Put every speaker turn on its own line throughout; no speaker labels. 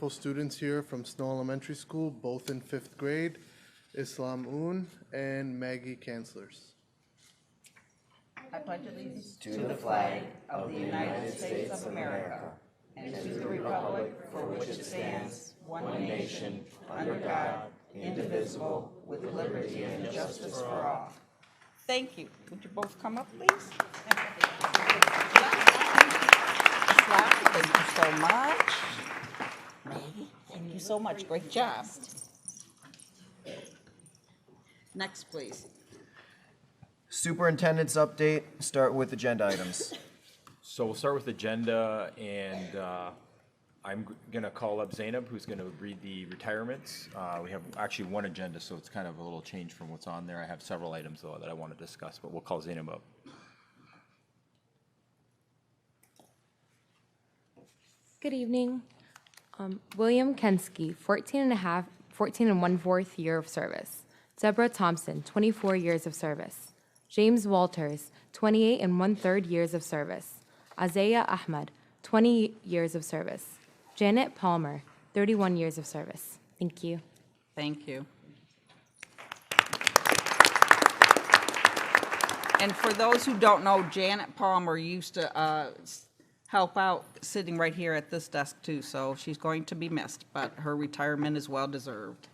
full students here from Snow Elementary School, both in fifth grade, Islam Un and Maggie Kanslers.
I pledge allegiance to the flag of the United States of America and to the republic for which it stands, one nation, under God, indivisible, with liberty and justice for all. Thank you. Would you both come up, please? Islam, thank you so much. Maggie, thank you so much. Great job. Next, please.
Superintendent's update, start with agenda items.
So we'll start with agenda, and uh, I'm g- gonna call up Zainab, who's gonna read the retirements. Uh, We have actually one agenda, so it's kind of a little change from what's on there. I have several items, though, that I want to discuss, but we'll call Zainab up.
Good evening. Um, William Kensky, 14 and a half, 14 and one-fourth year of service. Deborah Thompson, 24 years of service. James Walters, 28 and one-third years of service. Azaya Ahmed, 20 years of service. Janet Palmer, 31 years of service. Thank you.
Thank you. And for those who don't know, Janet Palmer used to uh, s- help out sitting right here at this desk too, so she's going to be missed, but her retirement is well-deserved.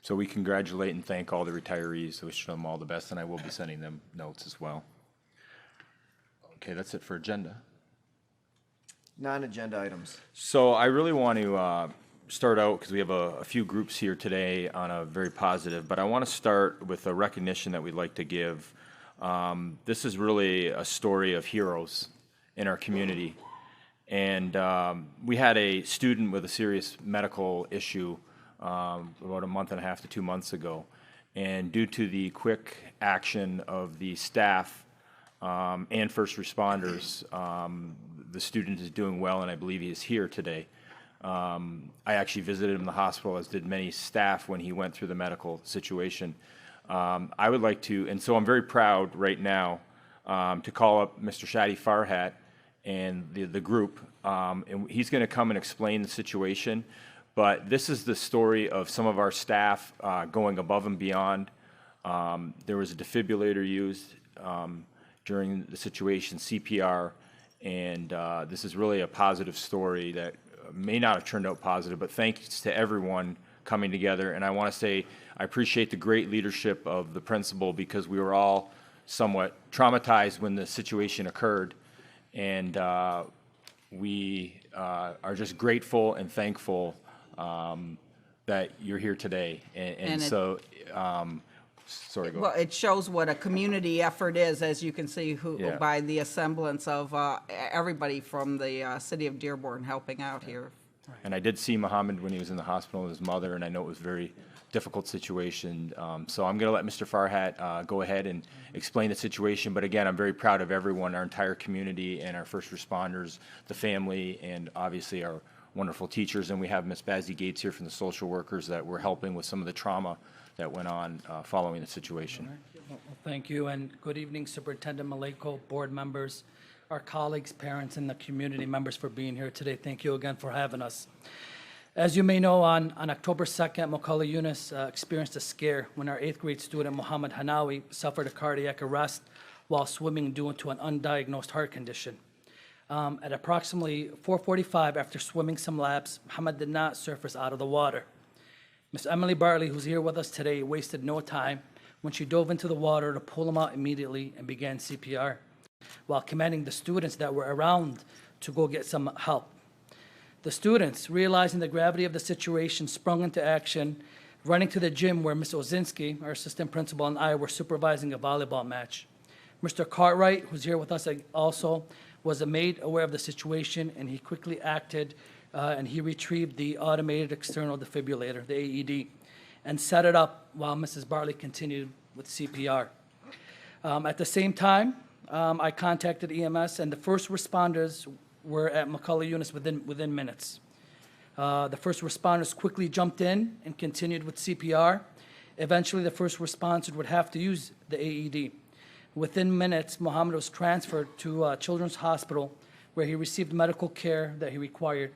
So we congratulate and thank all the retirees, wish them all the best, and I will be sending them notes as well. Okay, that's it for agenda.
Non-agenda items.
So I really want to uh, start out because we have a, a few groups here today on a very positive, but I want to start with a recognition that we'd like to give. Um, this is really a story of heroes in our community. And um, we had a student with a serious medical issue um, about a month and a half to two months ago. And due to the quick action of the staff um, and first responders, um, the student is doing well, and I believe he is here today. Um, I actually visited him in the hospital, as did many staff when he went through the medical situation. Um, I would like to, and so I'm very proud right now um, to call up Mr. Shadi Farhat and the, the group, um, and he's going to come and explain the situation. But this is the story of some of our staff uh, going above and beyond. Um, there was a defibrillator used um, during the situation, CPR, and uh, this is really a positive story that uh, may not have turned out positive, but thanks to everyone coming together. And I want to say I appreciate the great leadership of the principal because we were all somewhat traumatized when the situation occurred. And uh, we uh, are just grateful and thankful um, that you're here today. And, and,
And it-
so, um, sorry, go ahead.
Well, it shows what a community effort is, as you can see who,
Yeah.
by the assemblance of uh, e- everybody from the uh, city of Dearborn helping out here.
And I did see Mohammed when he was in the hospital with his mother, and I know it was a very difficult situation. Um, so I'm going to let Mr. Farhat uh, go ahead and explain the situation. But again, I'm very proud of everyone, our entire community, and our first responders, the family, and obviously our wonderful teachers. And we have Ms. Bazzy Gates here from the social workers that were helping with some of the trauma that went on uh, following the situation.
Well, Thank you, and good evening Superintendent Maliko, board members, our colleagues, parents, and the community members for being here today. Thank you again for having us. As you may know, on, on October 2nd, Macaulay Yunus uh, experienced a scare when our eighth grade student Mohammed Hanawi suffered a cardiac arrest while swimming due to an undiagnosed heart condition. Um, At approximately 4:45, after swimming some laps, Mohammed did not surface out of the water. Miss Emily Bartley, who's here with us today, wasted no time when she dove into the water to pull him out immediately and began CPR while commanding the students that were around to go get some help. The students, realizing the gravity of the situation, sprung into action, running to the gym where Ms. Ozinski, our assistant principal, and I were supervising a volleyball match. Mr. Cartwright, who's here with us like, also, was made aware of the situation, and he quickly acted, uh, and he retrieved the automated external defibrillator, the AED, and set it up while Mrs. Barley continued with CPR. Um, at the same time, um, I contacted EMS, and the first responders were at McCullough Units within, within minutes. Uh, the first responders quickly jumped in and continued with CPR. Eventually, the first responders would have to use the AED. Within minutes, Mohammed was transferred to uh, Children's Hospital, where he received medical care that he required